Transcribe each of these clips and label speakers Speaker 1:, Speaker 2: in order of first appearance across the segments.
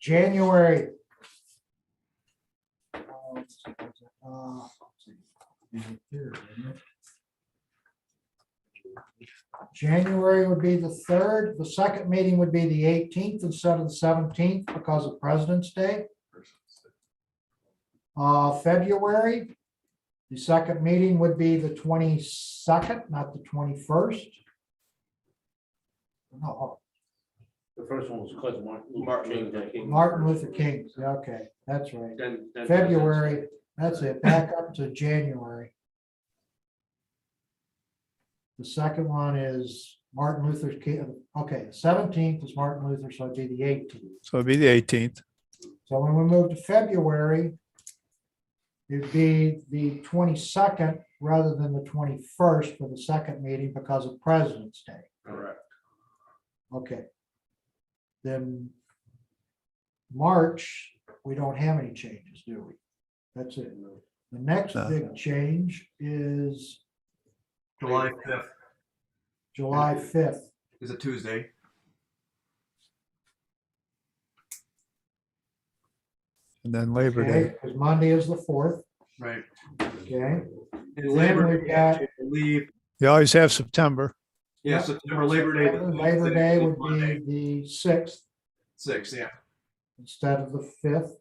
Speaker 1: January. Oh, uh, January would be the third, the second meeting would be the eighteenth instead of the seventeenth because of President's Day. Uh, February, the second meeting would be the twenty-second, not the twenty-first. No, oh,
Speaker 2: The first one was because Martin
Speaker 3: Martin
Speaker 2: Luther
Speaker 3: Luther
Speaker 2: King.
Speaker 1: uh, Martin Luther King, yeah, okay, that's right.
Speaker 2: Then- then-
Speaker 1: February, that's it, back up to January. The second one is Martin Luther King, okay, seventeenth is Martin Luther, so it'd be the eighteenth.
Speaker 4: So it'd be the eighteenth.
Speaker 1: So when we move to February, it'd be the twenty-second rather than the twenty-first for the second meeting because of President's Day.
Speaker 2: Correct.
Speaker 1: Okay. Then March, we don't have any changes, do we? That's it. The next
Speaker 4: No.
Speaker 1: big change is
Speaker 3: July
Speaker 2: Labor
Speaker 3: fifth
Speaker 1: July fifth.
Speaker 3: is a Tuesday.
Speaker 4: And then Labor
Speaker 1: Okay,
Speaker 4: Day.
Speaker 1: because Monday is the fourth,
Speaker 3: Right.
Speaker 1: okay?
Speaker 3: And
Speaker 1: Labor
Speaker 3: Labor
Speaker 1: Day,
Speaker 3: Day, I believe.
Speaker 4: You always have September.
Speaker 3: Yeah,
Speaker 1: Yep.
Speaker 3: September Labor Day. the
Speaker 1: Labor
Speaker 3: 26th
Speaker 1: Day
Speaker 3: is
Speaker 1: would
Speaker 3: Monday,
Speaker 1: be the sixth
Speaker 3: Six, yeah.
Speaker 1: instead of the fifth.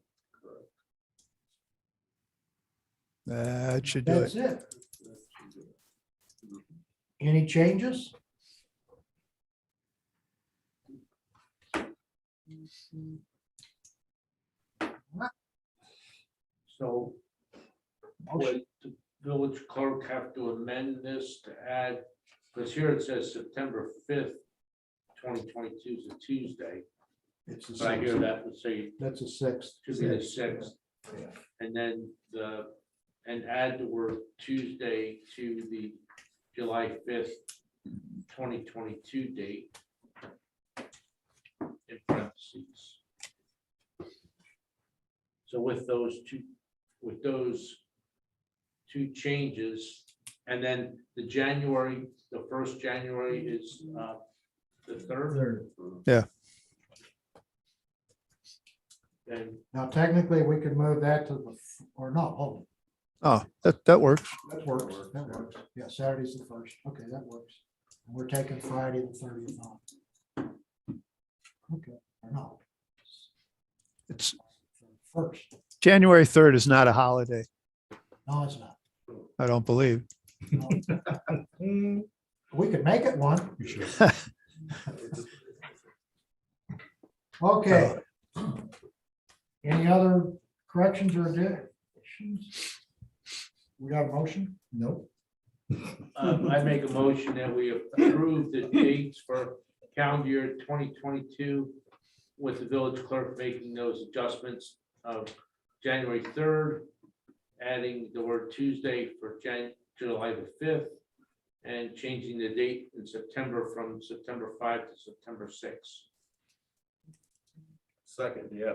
Speaker 4: That should do
Speaker 1: That's
Speaker 4: it.
Speaker 1: it. Any changes?
Speaker 2: So would the village clerk have to amend this to add, because here it says September fifth, twenty twenty-two is a Tuesday.
Speaker 1: It's the
Speaker 2: But I hear
Speaker 1: sixth.
Speaker 2: that would say
Speaker 1: That's the sixth.
Speaker 2: Tuesday the sixth. And then the, and add the word Tuesday to the July fifth, twenty twenty-two date. In parentheses. So with those two, with those two changes, and then the January, the first January is uh, the third,
Speaker 1: Third.
Speaker 2: and
Speaker 1: Now technically, we could move that to the, f- or no, oh,
Speaker 4: Oh, that, that works.
Speaker 1: that works, that works. Yeah, Saturday's the first. Okay, that works. And we're taking Friday the thirtieth off. Okay, or no,
Speaker 4: It's,
Speaker 1: first.
Speaker 4: January third is not a holiday,
Speaker 1: No, it's not.
Speaker 4: I don't believe.
Speaker 1: No. Hmm, We could make it one. Okay. Any other corrections or additions? We got a motion? Nope.
Speaker 2: Um, I make a motion that we approve the dates for calendar year twenty twenty-two with the village clerk making those adjustments of January third, adding the word Tuesday for Jan, July the fifth, and changing the date in September from September five to September six.
Speaker 3: Second, yeah.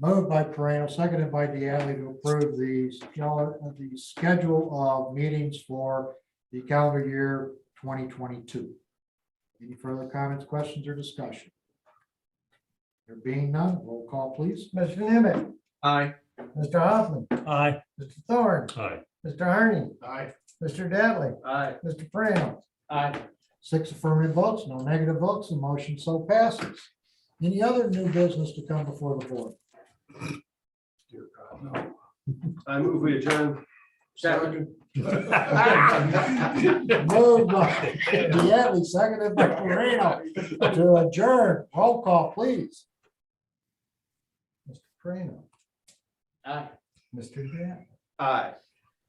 Speaker 1: Moved by Pareno, seconded by Deanne to approve the, schedule- the schedule of meetings for the calendar year twenty twenty-two. Any further comments, questions, or discussion? There being none, roll call, please.
Speaker 5: Mr. Nimitz,
Speaker 3: Aye.
Speaker 5: Mr. Hoffman. Aye. Mr. Thorne.
Speaker 2: Aye.
Speaker 5: Mr. Harney,
Speaker 1: Aye.
Speaker 5: Mr. Dattley,
Speaker 2: Aye.
Speaker 5: Mr. Prano.
Speaker 2: Aye.
Speaker 1: Six affirmative votes, no negative votes, the motion so passes. Any other new business to come before the board?
Speaker 3: I move we adjourn.
Speaker 2: Second.
Speaker 1: Moved by Deanne, seconded by Pareno to adjourn. Roll call, please.
Speaker 5: Mr. Prano,
Speaker 2: Aye.
Speaker 5: Mr. Dattley,
Speaker 3: Aye.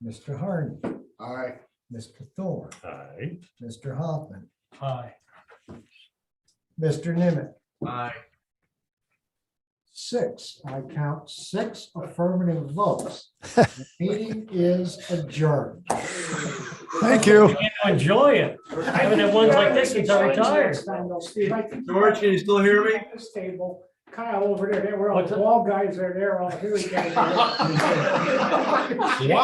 Speaker 5: Mr. Harney,
Speaker 3: Aye.
Speaker 5: Mr. Thorne,
Speaker 3: Aye.
Speaker 5: Mr. Hoffman. Aye. Mr. Nimitz,
Speaker 3: Aye.
Speaker 1: Six, I count six affirmative votes. Meeting is adjourned.
Speaker 4: Thank you.
Speaker 6: Enjoy it. I haven't had ones like this since I retired.
Speaker 3: George, can you still hear me?
Speaker 7: This table, Kyle over there, they were all,
Speaker 6: What's
Speaker 7: the
Speaker 6: that?
Speaker 7: wall guys are there, all here we go.